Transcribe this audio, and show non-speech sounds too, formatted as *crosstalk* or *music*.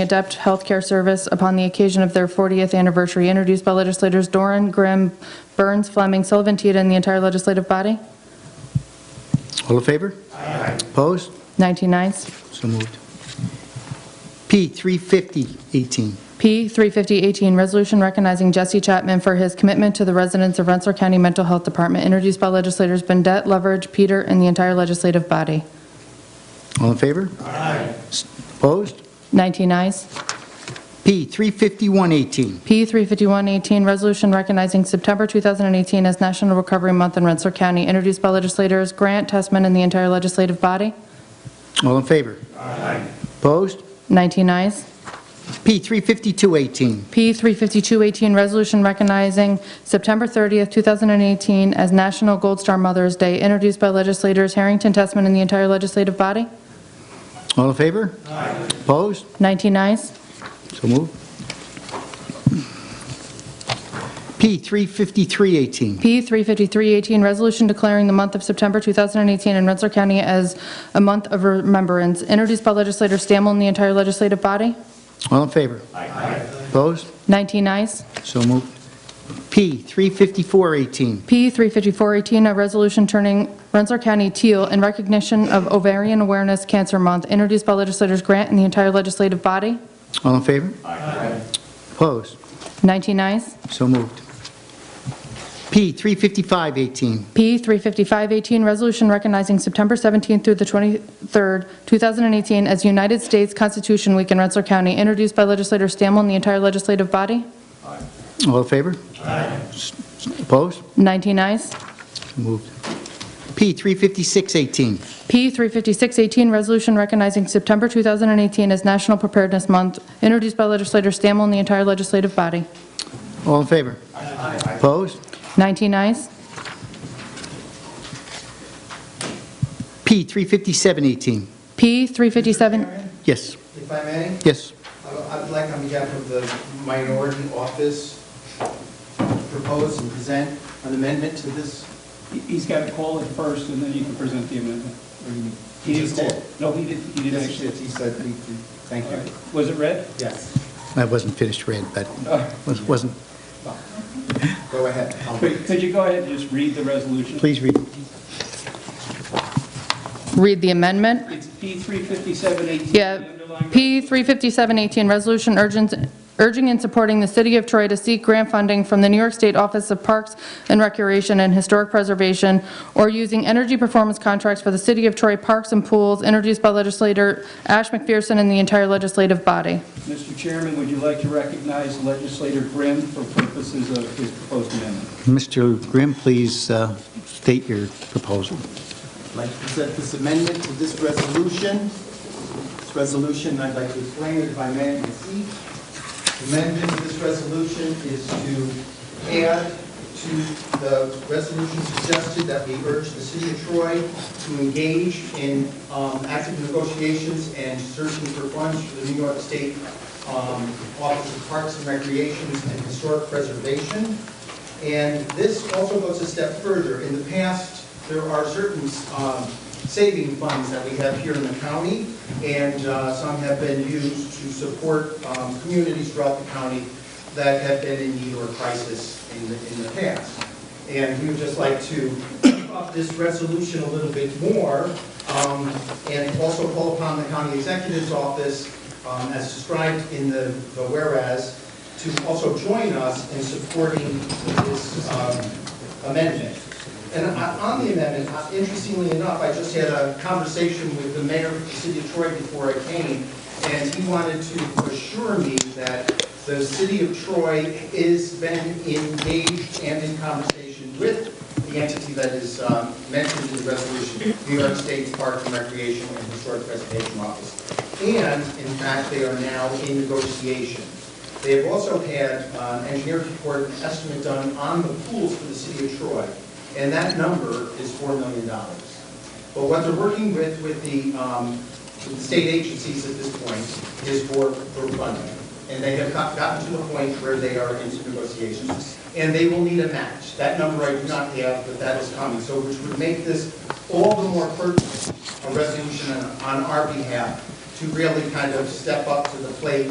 Adept Healthcare Service upon the occasion of their 40th anniversary, introduced by legislators Doran, Grimm, Burns, Fleming, Sullivan, Teeter, and the entire legislative body. All in favor? Aye. Opposed? 19 ayes. So moved. P 35018, P. 35018, resolution recognizing Jesse Chapman for his commitment to the residents of Rensselaer County Mental Health Department, introduced by legislators Bendet, Leverage, Peter, and the entire legislative body. all in favor? Aye. Opposed? 19 ayes. P 35118, P. 35118, resolution recognizing September 2018 as National Recovery Month in Rensselaer County, introduced by legislators Grant, Testman, and the entire legislative body. all in favor? Aye. Opposed? 19 ayes. P 35218, P. 35218, resolution recognizing September 30th, 2018 as National Gold Star Mother's Day, introduced by legislators Harrington, Testman, and the entire legislative body. all in favor? Aye. Opposed? 19 ayes. So moved. P 35318, P. 35318, resolution declaring the month of September 2018 in Rensselaer County as a month of remembrance, introduced by legislator Stammel and the entire legislative body. all in favor? Aye. Opposed? 19 ayes. So moved. P 35418, P. 35418, a resolution turning Rensselaer County teal in recognition of Ovarian Awareness Cancer Month, introduced by legislators Grant and the entire legislative body. all in favor? Aye. Opposed? 19 ayes. So moved. P 35518, P. 35518, resolution recognizing September 17th through the 23rd, 2018 as United States Constitution Week in Rensselaer County, introduced by legislator Stammel and the entire legislative body. all in favor? Aye. Opposed? 19 ayes. So Moved. P 35618, P. 35618, resolution recognizing September 2018 as National Preparedness Month, introduced by legislator Stammel and the entire legislative body. all in favor? Aye. Opposed? 19 ayes. P 35718, P. 357, yes, If I may, yes, I- I'd like on behalf of the minority office, propose and present an amendment to this. He- He's got to call it first, and then you can present the amendment. He didn't Just call. did. No, he didn't, he didn't Yes, actually. yes, he said, we- we- thank All right. you. Was it read? Yes, I wasn't finished read, but Uh, was- wasn't, go ahead. *laughs* I'll Could wait. could you go ahead and just read the resolution? please read. read the amendment. It's P 35718. Yeah, the underlying P. 35718, resolution urgent- urging and supporting the city of Troy to seek grant funding from the New York State Office of Parks and Recreation and Historic Preservation, or using energy performance contracts for the city of Troy parks and pools, introduced by legislator Ash McPherson and the entire legislative body. Mr. Chairman, would you like to recognize legislator Grimm for purposes of his proposed amendment? Mr. Grimm, please uh, state your proposal. I'd like to present this amendment to this resolution. This resolution, I'd like to explain it if I may, in my seat. The Amendment to this resolution is to add to the resolution suggested that we urge the city of Troy to engage in um, active negotiations and searching for funds for the New York State um, Office of Parks and Recreation and Historic Preservation. And this also goes a step further. In the past, there are certain um, saving funds that we have here in the county, and uh, some have been used to support um, communities throughout the county that have been in need or crisis in the, in the past. And we would just like to up this resolution a little bit more, um, and also call upon the county executive's office, um, as described in the the whereas, to also join us in supporting this um, amendment. And I- on the amendment, uh, interestingly enough, I just had a conversation with the mayor of the city of Troy before I came, and he wanted to assure me that the city of Troy is been engaged and in conversation with the entity that is um, mentioned in the resolution, New York State's Parks and Recreation and Historic Preservation Office. And, in fact, they are now in negotiation. They have also had um, engineer's report and estimate done on the pools for the city of Troy, and that number is $4 million. But what they're working with, with the, um, with the state agencies at this point is for, for funding. And they have got- gotten to the point where they are into negotiations. And they will need a match. That number I do not have, but that is coming. So which would make this all the more pertinent, a resolution on- on our behalf to to really kind of step up to the plate